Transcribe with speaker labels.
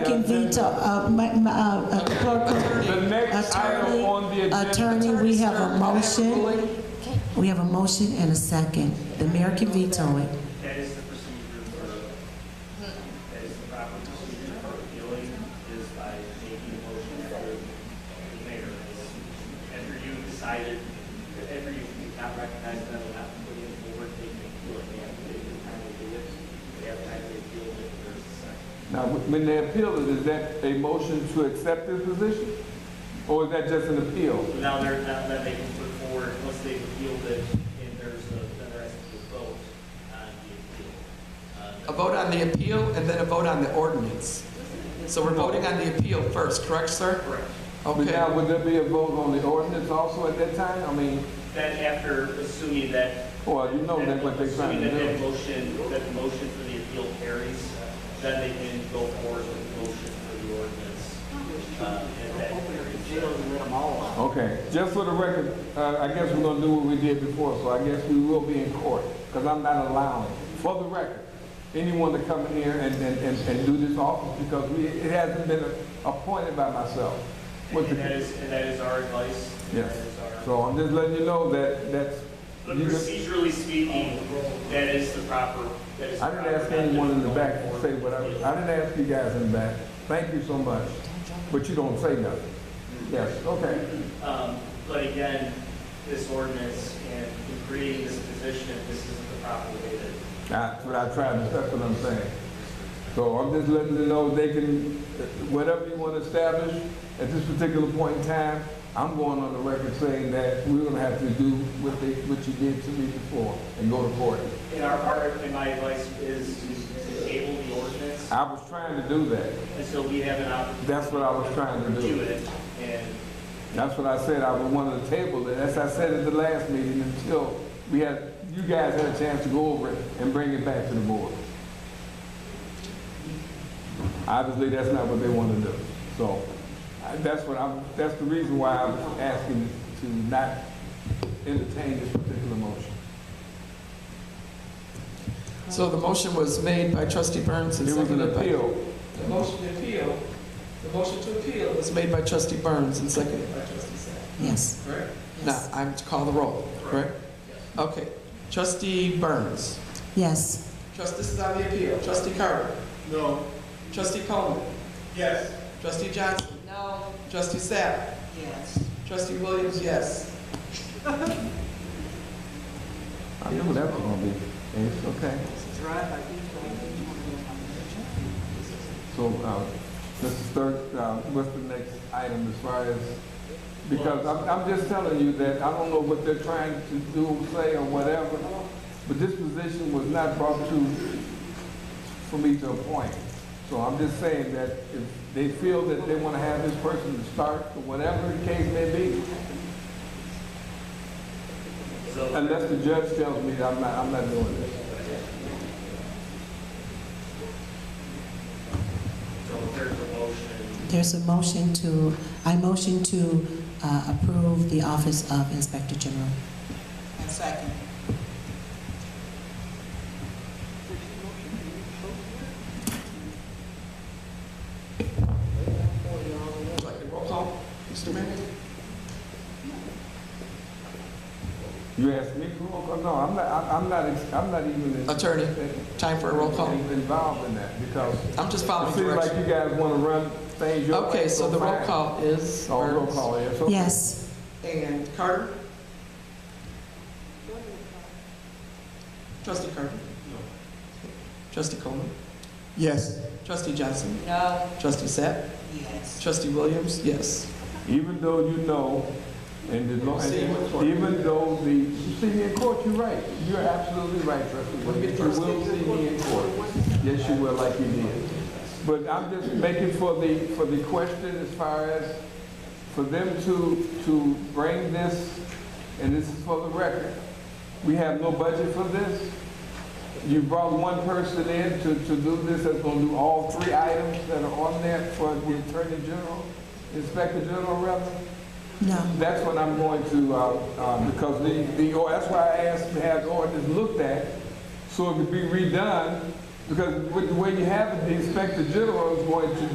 Speaker 1: veto, uh, ma- ma- uh, uh, clerk.
Speaker 2: The next item on the agenda.
Speaker 1: Attorney, we have a motion. We have a motion and a second. The mayor can veto it.
Speaker 3: That is the procedure for, that is the proper procedure for appealing, is by making a motion to the mayor. After you have decided, after you not recognize them, not putting it forward, they can appeal it, they have to take the time to do it, they have time to appeal it, there's a second.
Speaker 2: Now, when they appeal it, is that a motion to accept this position? Or is that just an appeal?
Speaker 3: So Now they're, now that they can put forward, once they've appealed it, and there's a, then there has to be a vote on the appeal. Uh,
Speaker 4: A vote on the appeal and then a vote on the ordinance. So we're voting on the appeal first, correct, sir?
Speaker 3: Correct.
Speaker 2: But
Speaker 4: Okay.
Speaker 2: now, would there be a vote on the ordinance also at that time? I mean,
Speaker 3: Then after, assuming that
Speaker 2: well, you know that's what they're trying to
Speaker 3: Assuming that that
Speaker 2: do.
Speaker 3: motion, that the motion for the appeal carries, then they can go forward with the motion for the ordinance. uh, And that carries.
Speaker 2: Okay, just for the record, uh, I guess we're gonna do what we did before, so I guess we will be in court, because I'm not allowing, for the record, anyone to come in here and, and, and, and do this office, because we, it hasn't been appointed by myself. What the-
Speaker 3: And that is, and that is our advice. and that
Speaker 2: Yes,
Speaker 3: is our-
Speaker 2: so I'm just letting you know that, that's.
Speaker 3: But
Speaker 2: you just-
Speaker 3: procedurally speaking, that is the proper, that is. the
Speaker 2: I didn't
Speaker 3: proper
Speaker 2: ask anyone in the
Speaker 3: method
Speaker 2: back to
Speaker 3: going
Speaker 2: say what I,
Speaker 3: forward.
Speaker 2: I didn't ask you guys in the back, thank you so much, but you don't say nothing. Yes, okay.
Speaker 3: Um, But again, this ordinance and in creating this position, this isn't the proper way to.
Speaker 2: That's what I tried to, that's what I'm saying. So I'm just letting them know they can, whatever you want to establish at this particular point in time, I'm going on the record saying that we're gonna have to do what they, what you did to me before and go to court.
Speaker 3: In our part, and my advice is to to table the ordinance
Speaker 2: I was trying to do that,
Speaker 3: And so we have an opportunity.
Speaker 2: that's what I was trying to do.
Speaker 3: Review it, and
Speaker 2: That's what I said, I would want to table it, as I said at the last meeting, until we had, you guys had a chance to go over it and bring it back to the board. Obviously, that's not what they want to do, so, I- that's what I'm, that's the reason why I'm asking to not entertain this particular motion.
Speaker 4: So the motion was made by trustee Burns and
Speaker 2: It was an
Speaker 4: seconded by...
Speaker 2: appeal,
Speaker 4: The motion to appeal, the motion to appeal was made by trustee Burns and seconded by trustee Sapp.
Speaker 1: Yes.
Speaker 4: Correct? Now,
Speaker 1: Yes.
Speaker 4: I'm to call the roll, correct? Okay. Trustee Burns.
Speaker 1: Yes.
Speaker 4: Trust, this is on the appeal. Trustee Carter.
Speaker 3: No.
Speaker 4: Trustee Coleman.
Speaker 3: Yes.
Speaker 4: Trustee Johnson. No. Trustee Sapp.
Speaker 1: Yes.
Speaker 4: Trustee Williams, yes.
Speaker 2: I knew that was gonna be, it's okay. So, uh, Mr. Sturg, uh, what's the next item as far as, because I'm, I'm just telling you that I don't know what they're trying to do, say, or whatever, but this position was not brought to, for me to appoint. So I'm just saying that if they feel that they want to have this person to start, or whatever the case may be,
Speaker 3: So,
Speaker 2: unless the judge tells me that I'm not, I'm not doing this.
Speaker 3: so if there's a motion,
Speaker 1: There's a motion to, I motion to uh, approve the office of Inspector General. second.
Speaker 4: Roll call, Mr. Mayor.
Speaker 2: You ask me for roll call? No, I'm not, I'm- I'm not, ex- I'm not even.
Speaker 4: Attorney, time for a roll call.
Speaker 2: Involved in that because
Speaker 4: I'm just
Speaker 2: it
Speaker 4: following
Speaker 2: seems like
Speaker 4: directions.
Speaker 2: you guys want to run things your way.
Speaker 4: Okay, so the roll
Speaker 2: fine.
Speaker 4: call is
Speaker 2: Oh, roll
Speaker 4: Burns
Speaker 2: call, yes. okay.
Speaker 1: Yes.
Speaker 4: and Carter. Trustee Carter. Trustee Coleman.
Speaker 5: Yes.
Speaker 4: Trustee Johnson.
Speaker 1: No.
Speaker 4: Trustee Sapp.
Speaker 1: Yes.
Speaker 4: Trustee Williams, yes.
Speaker 2: Even though you know, and the, law-
Speaker 4: See you in court.
Speaker 2: even though the, you see me in court, you're right. You're absolutely right, trustee.
Speaker 4: We'll get
Speaker 2: Williams.
Speaker 4: first
Speaker 2: You will
Speaker 4: dibs in
Speaker 2: see me in court. Yes, you will, like you did. But I'm just making for the, for the question as far as, for them to, to bring this, and this is for the record, we have no budget for this. You brought one person in to, to do this, that's gonna do all three items that are on there for the Attorney General, Inspector General rather.
Speaker 1: No.
Speaker 2: That's what I'm going to, uh, uh, because the, the, or- that's why I asked to have the ordinance looked at, so it could be redone, because with the way you have it, the inspector general is going to